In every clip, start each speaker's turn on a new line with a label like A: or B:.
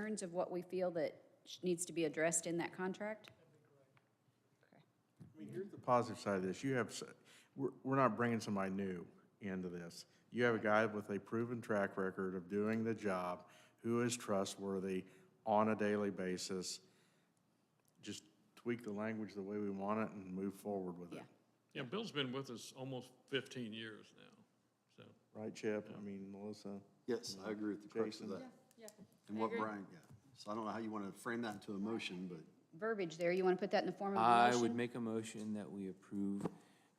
A: concerns of what we feel that sh- needs to be addressed in that contract?
B: I mean, here's the positive side of this. You have, s- we're, we're not bringing somebody new into this. You have a guy with a proven track record of doing the job, who is trustworthy on a daily basis. Just tweak the language the way we want it and move forward with it.
A: Yeah.
C: Yeah, Bill's been with us almost fifteen years now, so.
B: Right, Chip? I mean, Melissa?
D: Yes, I agree with the crux of that. And what Brian, yeah. So I don't know how you want to frame that into a motion, but
A: Verbiage there, you want to put that in the form of a
E: I would
A: motion?
E: make a motion that we approve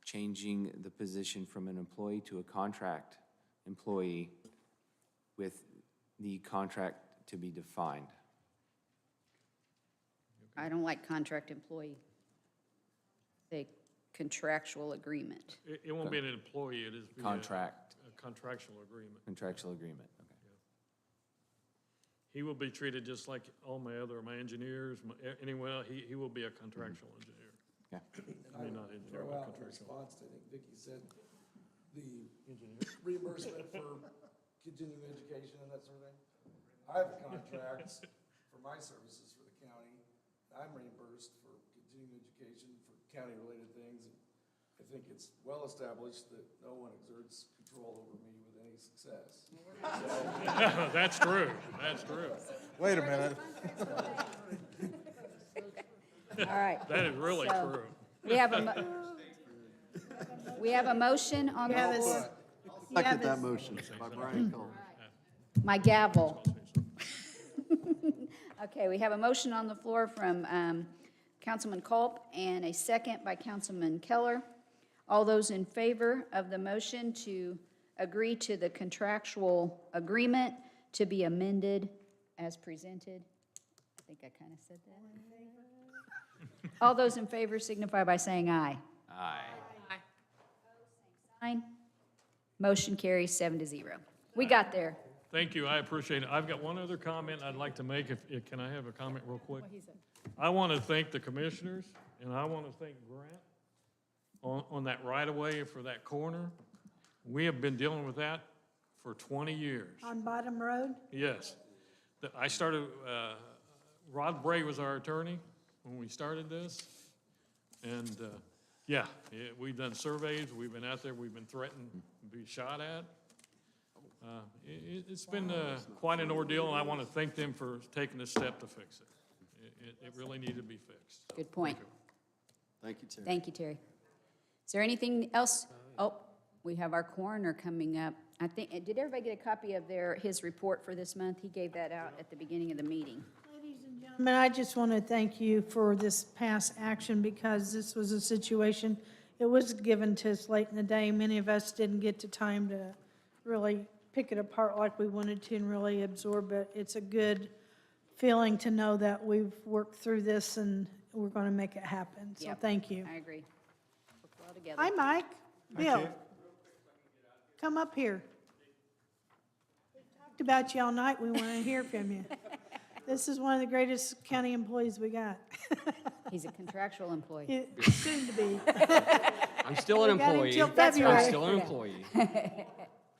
E: changing the position from an employee to a contract employee with the contract to be defined.
A: I don't like contract employee. Say contractual agreement.
C: It, it won't be an employee, it is. be a-
E: Contract.
C: A contractual agreement.
E: Contractual agreement, okay.
C: He will be treated just like all my other, my engineers, my, anyone, else. he, he will be a contractual engineer.
E: Mm-hmm. Yeah,
C: I mean, not engineer,
F: throw
C: but
F: out in
C: contractual.
F: response, to, I think Vicky said, the reimbursement for continuing education and that sort of thing. I have contracts for my services for the county. I'm reimbursed for continuing education for county-related things. I think it's well established that no one exerts control over me with any success.
C: That's true, that's true.
B: Wait a minute.
A: All right.
C: That is really
A: So-
C: true.
A: We have a, mo- we have a motion on the
G: have a s-
A: floor.
G: You
D: second
G: have
D: that
G: a-
D: motion by Brian Culver.
A: My gavel. Okay, we have a motion on the floor from um, Councilman Culp and a second by Councilman Keller. All those in favor of the motion to agree to the contractual agreement to be amended as presented? I think I kind of said that. All those in favor signify by saying aye. Aye. Aye. Motion carries seven to zero. We got there.
C: Thank you, I appreciate it. I've got one other comment I'd like to make, if, if- can I have a comment real quick? I want to thank the commissioners, and I want to thank Grant on, on that right-of-way for that corner. We have been dealing with that for 20 years.
G: On Bottom Road?
C: Yes. The- I started, uh, Rod Bray was our attorney when we started this. And, uh, yeah, yeah, we've done surveys, we've been out there, we've been threatened to be shot at. Uh, It, it's been uh, quite an ordeal, and I want to thank them for taking the step to fix it. It- It, it really needed to be fixed. so
A: Good point.
C: thank you.
D: Thank you, Terry.
A: Thank you, Terry. Is there anything else? Oh, we have our coroner coming up. I think, eh, did everybody get a copy of their, his report for this month? He gave that out at the beginning of the meeting.
G: Gentlemen, I just want to thank you for this past action because this was a situation, it was given to us late in the day. Many of us didn't get the time to really pick it apart like we wanted to and really absorb it. It's a good feeling to know that we've worked through this and we're going to make it happen. So
A: Yep.
G: thank you.
A: I agree. Worked well together.
G: Hi, Mike. Bill. Come up here. Talked about you all night. We want to hear from you. This is one of the greatest county employees we got.
A: He's a contractual employee.
G: It- Soon to be.
H: I'm still an
G: We got
H: employee.
G: until
H: I'm
G: February.
H: still an employee.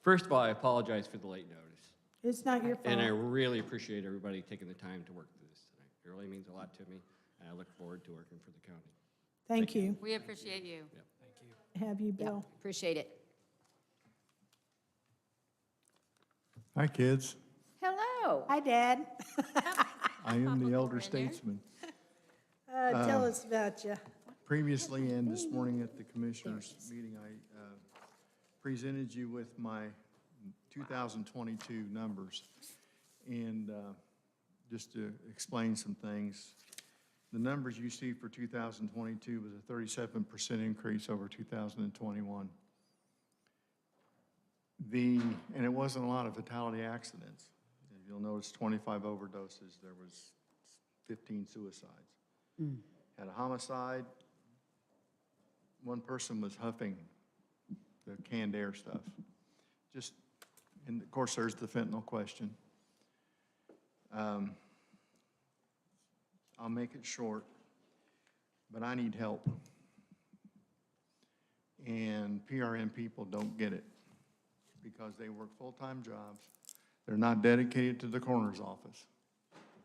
H: First of all, I apologize for the late notice,
G: It's not your
H: and I
G: fault.
H: really appreciate everybody taking the time to work through this tonight. It really means a lot to me, and I look forward to working for the county.
G: Thank you.
I: We appreciate you.
G: Have you, Bill.
A: Appreciate it.
J: Hi, kids.
A: Hello.
G: Hi, Dad.
J: I am the elder statesman.
G: Uh, Tell us about you.
J: Previously and this morning at the commissioners' meeting, I uh, presented you with my 2022 numbers. And uh, just to explain some things, the numbers you see for 2022 was a 37% increase over 2021. The, and it wasn't a lot of fatality accidents. If You'll notice 25 overdoses, there was 15 suicides. Had a homicide, one person was huffing the canned air stuff. Just, and of course, there's the fentanyl question. Um, I'll make it short, but I need help. And PRN people don't get it because they work full-time jobs. They're not dedicated to the coroner's office.